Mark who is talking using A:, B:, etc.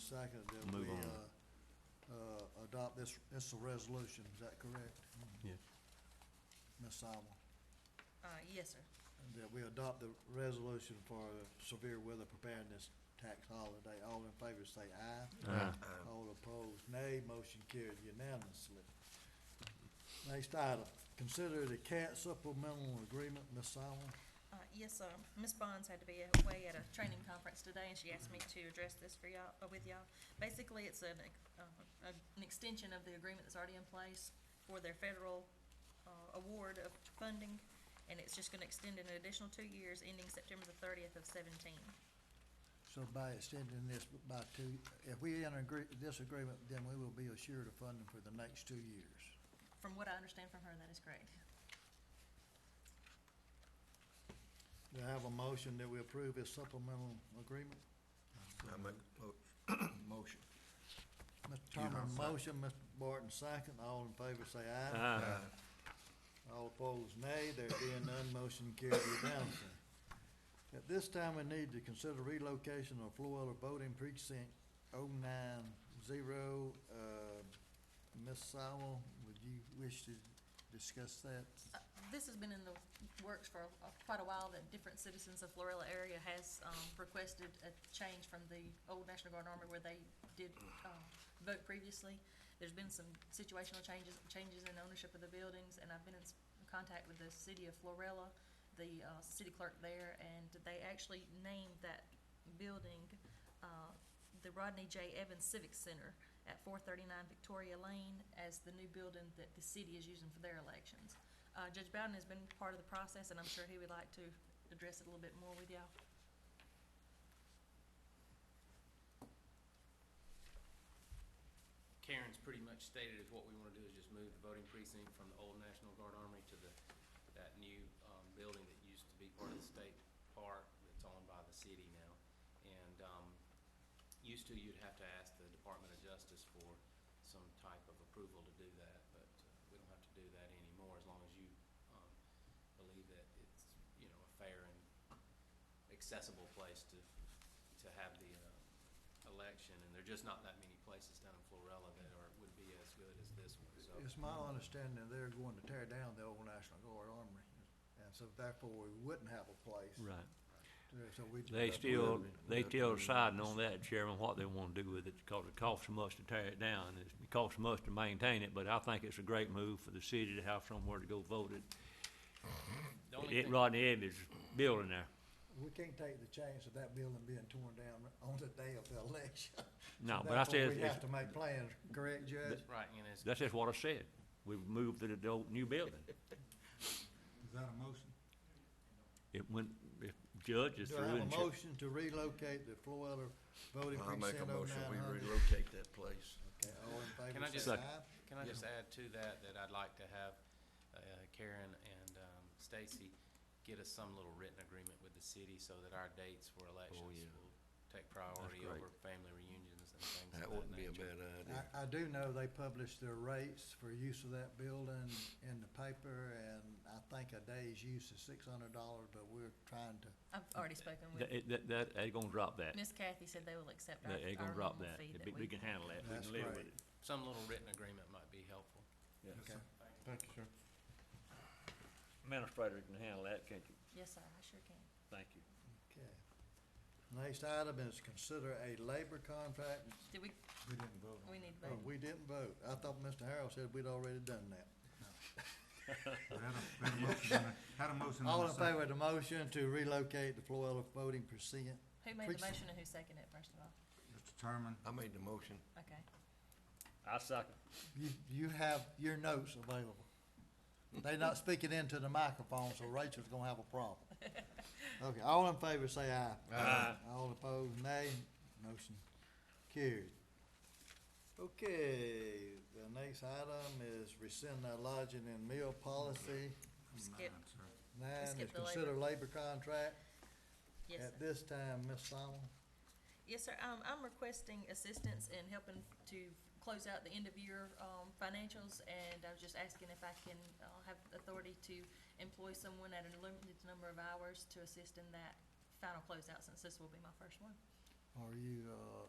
A: second that
B: Move
A: we,
B: on.
A: uh, uh, adopt this, this is a resolution, is that correct,
B: Yes.
A: Ms. Alma?
C: Uh, yes, sir.
A: That we adopt the resolution for the severe weather preparedness tax holiday. All in favor say aye.
B: Aye.
A: All opposed, nay. Motion carried unanimously. Next item, consider the CAT supplemental agreement, Ms. Allen.
C: Uh, yes, sir. Ms. Bonds had to be away at a training conference today, and she asked me to address this for y'all, uh, with y'all. Basically, it's an, ex- uh, a- an extension of the agreement that's already in place for their federal, uh, award of funding, and it's just gonna extend an additional two years, ending September the thirtieth of seventeen.
A: So by extending this by two, if we enter agree- this agreement, then we will be assured of funding for the next two years.
C: From what I understand from her, that is correct.
A: Do I have a motion that we approve this supplemental agreement?
D: I make a mo- motion.
A: Mr. Turner, motion, Mr. Barton, second. All in favor say aye.
D: Uh,
B: Aye.
A: All opposed, nay. There being none, motion carried unanimously. At this time, we need to consider relocation of Florilla voting precinct 090. Uh, Ms. Sowell, would you wish to discuss that?
C: Uh, This has been in the works for uh, quite a while, that different citizens of Florilla area has um, requested a change from the old National Guard Army where they did um, vote previously. There's been some situational changes, changes in ownership of the buildings, and I've been in s- contact with the city of Florilla, the uh, city clerk there, and they actually named that building uh, the Rodney J. Evans Civic Center at four thirty-nine Victoria Lane as the new building that the city is using for their elections. Uh, Judge Bowden has been part of the process, and I'm sure he would like to address it a little bit more with y'all.
E: Karen's pretty much stated is what we want to do is just move the voting precinct from the old National Guard Armory to the, that new, um, building that used to be part of the state park that's owned by the city now. And, um, used to, you'd have to ask the Department of Justice for some type of approval to do that, but uh, we don't have to do that anymore as long as you, um, believe that it's, you know, a fair and accessible place to, to have the, uh, election, and there are just not that many places down in Florella that are, would be as good as this one, so.
A: It's my understanding they're going to tear down the old National Guard Armory, and so therefore we wouldn't have a place.
B: Right.
A: So we. uh,
B: They still, they still deciding on that, Chairman, what they want to do with it, because it costs them much to tear it down, it's- it costs them much to maintain it, but I think it's a great move for the city to have somewhere to go vote it.
E: The only
B: It,
E: thing-
B: Rodney Evans building there.
A: We can't take the chance of that building being torn down on the day of the election.
B: No, but I
A: Therefore,
B: said,
A: We have to
B: it's-
A: make plans, correct, Judge?
E: Right, and it's,
B: that's just what I said, we moved to the old new building.
D: Is that a motion?
B: It went, if judge is
A: Do I
B: through
A: have
B: and.
A: a
B: cha-
A: motion to relocate the Florida voting
D: I make a
A: precinct oh nine
D: motion, we
A: hundred?
D: relocate that place.
A: Okay, all in
E: Can I
A: favor
E: just-
A: say aye.
E: can I just add to that, that I'd like to have uh, Karen and um, Stacy get us some little written agreement with the city so that our dates for
D: Oh,
E: elections
B: yeah.
E: will take priority
B: great.
E: over family reunions and things of that
D: That wouldn't be a
E: nature.
D: bad idea.
A: I, I do know they published their rates for use of that building in the paper, and I think a day's use is six hundred dollars, but we're trying to,
C: I've already spoken with,
B: That, that, that, they gonna drop that,
C: Miss Kathy said they will accept our, our
B: they gonna drop
C: normal
B: that,
C: fee
B: If
C: that
B: we
C: we.
B: we can handle that, we
A: That's
B: can live
A: great.
B: with it.
E: Some little written agreement might be helpful.
A: okay.
D: Thank you, sir.
B: Administrator can handle that, can't you?
C: Yes, sir, I sure can.
B: Thank you.
A: Okay. Next item is consider a labor contract.
C: Did we,
D: We didn't vote
C: we need to
A: Oh,
C: vote?
A: we didn't vote. I thought Mr. Harrell said we'd already done that.
D: Had a motion.
A: All in favor of the motion to relocate the Florilla voting precinct?
C: Who made the
A: Precinct.
C: motion and who seconded it, first of all?
F: Mr. Terman,
D: I made the motion.
C: Okay.
B: I second.
A: You, you have your notes available. They're not speaking into the microphone, so Rachel's gonna have a problem. Okay, all in favor, say aye.
B: Aye.
A: All opposed, nay. Motion carried. Okay, the next item is rescind our lodging and meal policy.
C: Skip,
F: Nine, sir.
A: Nine is
C: Skip the labor.
A: consider labor contract.
C: yes, sir.
A: At this time, Ms. Solomon.
C: Yes, sir. Um, I'm requesting assistance in helping to close out the end of year, um, financials, and I was just asking if I can, uh, have authority to employ someone at a limited number of hours to assist in that final closeout, since this will be my first one.
A: Are you, uh,